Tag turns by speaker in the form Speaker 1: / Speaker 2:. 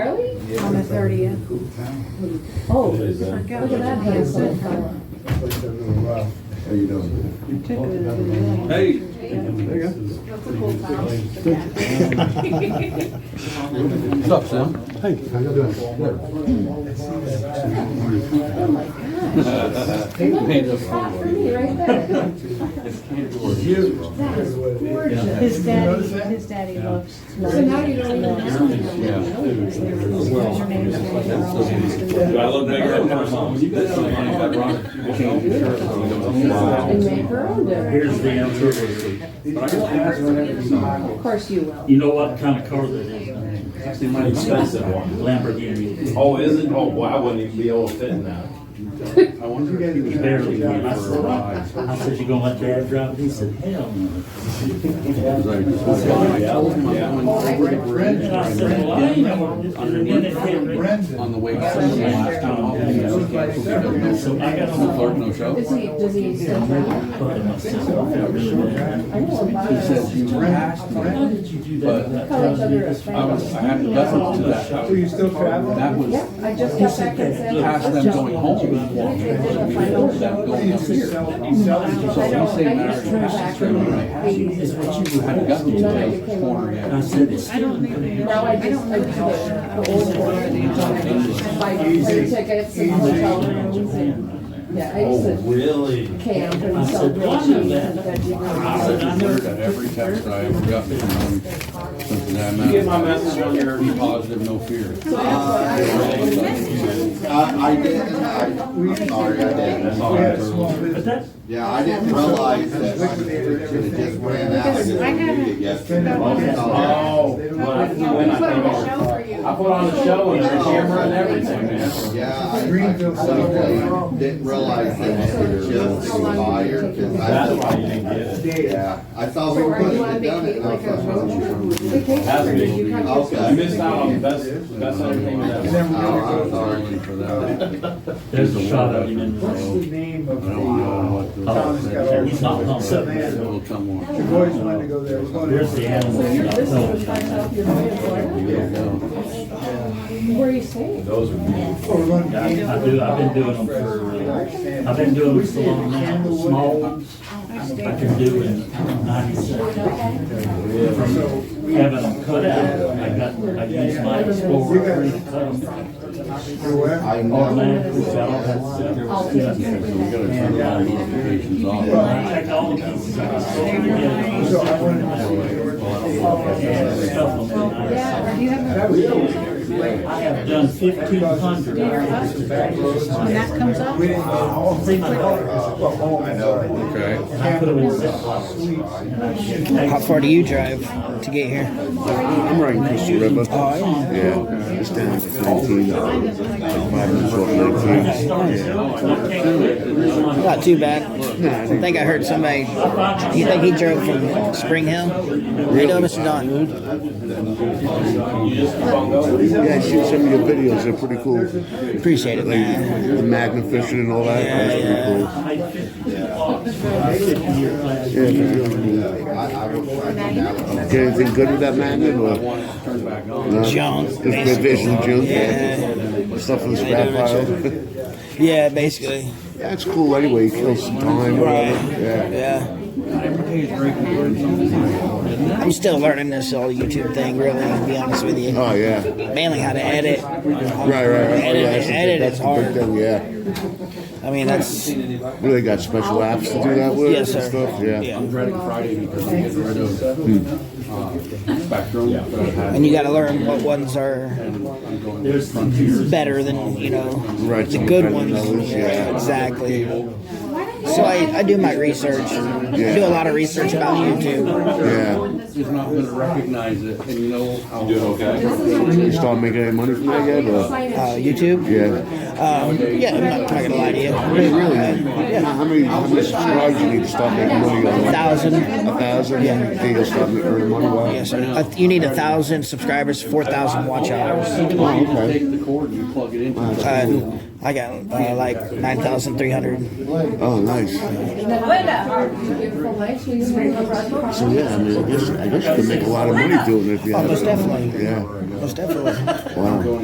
Speaker 1: thirtieth.
Speaker 2: Cool town.
Speaker 3: Oh,
Speaker 4: It is, uh,
Speaker 3: look at that handsome fella.
Speaker 2: It's like that little rock. How you doing?
Speaker 1: I took a-
Speaker 5: Hey.
Speaker 1: Yeah. That's a cool
Speaker 5: What's up, Sam?
Speaker 2: Hey, how you doing? Good.
Speaker 3: Oh my gosh.
Speaker 4: Oh,
Speaker 3: Look, it's hot for me right there. That is gorgeous.
Speaker 1: His daddy, his daddy loves.
Speaker 3: So now you don't even know.
Speaker 4: Do I look bigger than my mom?
Speaker 3: And make her own dinner.
Speaker 6: Here's the answer.
Speaker 3: Of course you will.
Speaker 6: You know what kind of car that is? Actually, my expensive one, Lamborghini.
Speaker 4: Oh, is it? Oh, well, I wouldn't even be able to fit in that.
Speaker 2: I wonder if
Speaker 6: He
Speaker 2: you guys.
Speaker 6: barely went. I said, I said, you gonna let dad drive? He said, hell no. And I said, well, I ain't never, I didn't want it.
Speaker 5: On the way to some of the last town hall, we got some people that don't know.
Speaker 6: So I got on the
Speaker 5: No clerk,
Speaker 6: phone.
Speaker 5: no show.
Speaker 3: Is he, does he still drive?
Speaker 6: But my son, I really did.
Speaker 3: I know about
Speaker 5: you
Speaker 6: How did you do that?
Speaker 3: Call each other a
Speaker 5: I was, I had to listen to that. I
Speaker 2: So you
Speaker 5: was-
Speaker 2: still travel?
Speaker 5: That was
Speaker 3: Yep, I just got back and said.
Speaker 5: past them going home,
Speaker 6: Just
Speaker 5: walking, so we were them going up here.
Speaker 3: I
Speaker 5: So
Speaker 3: don't,
Speaker 5: we say
Speaker 3: I
Speaker 5: now,
Speaker 3: just turned back from the
Speaker 6: Is
Speaker 3: eighties.
Speaker 6: what you
Speaker 5: I had gotten to
Speaker 6: were.
Speaker 5: the corner
Speaker 6: And I
Speaker 5: yet.
Speaker 6: said, it's.
Speaker 3: Now I just, I do the, the old one. I buy plane tickets and hotel rooms and, yeah, I used to
Speaker 4: Oh, really?
Speaker 3: camp and sell grilled cheese and
Speaker 5: I
Speaker 3: veggie.
Speaker 5: was alert at every text I ever got from them. Since that
Speaker 4: You get my
Speaker 5: matter.
Speaker 4: message on your
Speaker 5: Be positive, no fear.
Speaker 7: I, I didn't, I, I'm sorry, I
Speaker 4: That's
Speaker 7: didn't.
Speaker 4: all
Speaker 2: We
Speaker 4: I
Speaker 2: had
Speaker 4: ever.
Speaker 2: small
Speaker 6: But
Speaker 2: business.
Speaker 6: that,
Speaker 7: Yeah, I didn't realize that I should've just ran out and didn't read it yesterday.
Speaker 4: Oh, when I, when I came over. I put on a show and a camera and everything, man.
Speaker 7: Yeah, I, I
Speaker 2: Greenville
Speaker 7: suddenly didn't realize that it was just expired, cause
Speaker 4: That's why you
Speaker 7: I,
Speaker 4: didn't get it.
Speaker 7: yeah, I saw we
Speaker 3: So
Speaker 7: were
Speaker 3: are you
Speaker 7: putting
Speaker 3: on
Speaker 7: it down
Speaker 3: vacation,
Speaker 7: and I
Speaker 3: like
Speaker 7: was
Speaker 3: a
Speaker 7: like,
Speaker 3: road trip?
Speaker 7: oh,
Speaker 3: Vacation, or did you come? just-
Speaker 4: You missed out on the best, best entertainment
Speaker 2: And
Speaker 4: ever.
Speaker 2: then we're gonna
Speaker 5: Oh,
Speaker 7: I'm
Speaker 2: go,
Speaker 7: sorry for that.
Speaker 6: there's a shot of him in the
Speaker 2: what's
Speaker 6: road.
Speaker 2: the name of
Speaker 5: I
Speaker 2: the,
Speaker 5: don't know
Speaker 2: uh,
Speaker 5: what the.
Speaker 2: town that's got all.
Speaker 6: He's not
Speaker 2: the-
Speaker 6: home.
Speaker 2: the
Speaker 5: It
Speaker 2: land?
Speaker 5: will come on.
Speaker 2: The boys wanted to go there. It was one of-
Speaker 6: There's the
Speaker 4: uh,
Speaker 3: So you're,
Speaker 6: animals.
Speaker 3: this is the first time you're going to Florida? Where are you staying?
Speaker 4: Those are beautiful.
Speaker 2: Oh, we're going to-
Speaker 6: Yeah, I I do, I've been doing them for, uh, I've been doing them so long now, the small ones, I can do in ninety-seven.
Speaker 2: So we,
Speaker 6: Having them cut out, I got, I used my explorer, to cut them,
Speaker 2: you're where?
Speaker 7: I
Speaker 6: or
Speaker 7: know,
Speaker 6: land, which I don't have to do.
Speaker 5: We gotta turn the notifications off.
Speaker 6: I checked all the pieces, I was so together,
Speaker 2: So I wanted to see George.
Speaker 6: and stuff them in there.
Speaker 1: Do you have
Speaker 2: That
Speaker 1: a,
Speaker 2: was it.
Speaker 6: I have done fifteen hundred.
Speaker 1: when that comes up?
Speaker 2: We didn't go home.
Speaker 6: See, my daughter,
Speaker 2: Well, home,
Speaker 7: I know.
Speaker 5: Okay.
Speaker 6: I put them in Ziploc sweets, and I should take
Speaker 8: How far do you drive to get here?
Speaker 9: I'm right next to River. Yeah, it's down to nineteen, like five minutes off nineteen. Yeah.
Speaker 8: Not too bad. I think I heard somebody. You think he drove from Spring Hill? You know, Mr. Don.
Speaker 4: You just keep on going.
Speaker 9: Yeah, shoot some of your videos, they're pretty cool.
Speaker 8: Appreciate it,
Speaker 9: Like
Speaker 8: man.
Speaker 9: the magna fishing and all that, that's
Speaker 6: I paid fifty bucks for a fifty-year class.
Speaker 9: pretty cool. Yeah, man.
Speaker 7: I, I will try to now.
Speaker 9: Get anything good with that magnet or?
Speaker 5: Turn back on.
Speaker 9: no?
Speaker 8: Junk,
Speaker 9: It's good fish and junk, yeah.
Speaker 8: Yeah.
Speaker 9: Stuff from the scrap pile.
Speaker 8: Yeah, basically.
Speaker 9: Yeah, it's cool anyway, you kill some time,
Speaker 8: Right.
Speaker 9: whatever, yeah.
Speaker 8: Yeah. I'm still learning this whole YouTube thing, really, to be honest with you.
Speaker 9: Oh, yeah.
Speaker 8: Mainly how to edit.
Speaker 9: Right, right, right. Oh,
Speaker 8: Edit,
Speaker 9: yeah, that's a-
Speaker 8: edit
Speaker 9: that's
Speaker 8: is
Speaker 9: a big
Speaker 8: hard.
Speaker 9: thing, Yeah.
Speaker 8: I mean, that's.
Speaker 9: What, do they got special apps to do that with and
Speaker 8: Yes, sir.
Speaker 9: stuff? Yeah.
Speaker 8: Yeah.
Speaker 5: dreading Friday because I'm getting rid of uh, Spectrum. that I had.
Speaker 8: And you got to learn what ones are
Speaker 5: I'm going to
Speaker 6: There's frontiers.
Speaker 8: better than, you know,
Speaker 9: Right.
Speaker 8: the
Speaker 9: some
Speaker 8: good
Speaker 9: kind of
Speaker 8: ones.
Speaker 9: those,
Speaker 8: Yeah,
Speaker 9: Yeah.
Speaker 8: exactly. So I, I do my research. I do a lot of research about YouTube.
Speaker 9: Yeah.
Speaker 5: Is not going to recognize it, and you know how.
Speaker 4: You doing okay?
Speaker 9: You start making any money from that yet? Or?
Speaker 8: Uh, YouTube?
Speaker 9: Yeah.
Speaker 8: Um, yeah, I'm not talking to lie to you.
Speaker 9: Hey, really?
Speaker 8: Uh,
Speaker 9: How how many, how much subscribers you need to start making money on?
Speaker 8: A thousand.
Speaker 9: A thousand?
Speaker 8: Yeah.
Speaker 9: You think you'll start making earning money? Wow.
Speaker 8: Yes, sir. Uh, you need a thousand subscribers, four thousand watch hours.
Speaker 5: You just take the cord and you plug it in.
Speaker 8: Uh, I got uh, like nine thousand three hundred.
Speaker 9: Oh, nice.
Speaker 3: Beautiful nights, we used to go to-
Speaker 9: So yeah, I mean, I guess, I guess you can make a lot of money doing it if you
Speaker 8: Oh,
Speaker 9: have.
Speaker 8: most
Speaker 9: it.
Speaker 8: definitely.
Speaker 9: Yeah.
Speaker 8: Most definitely.
Speaker 9: Wow.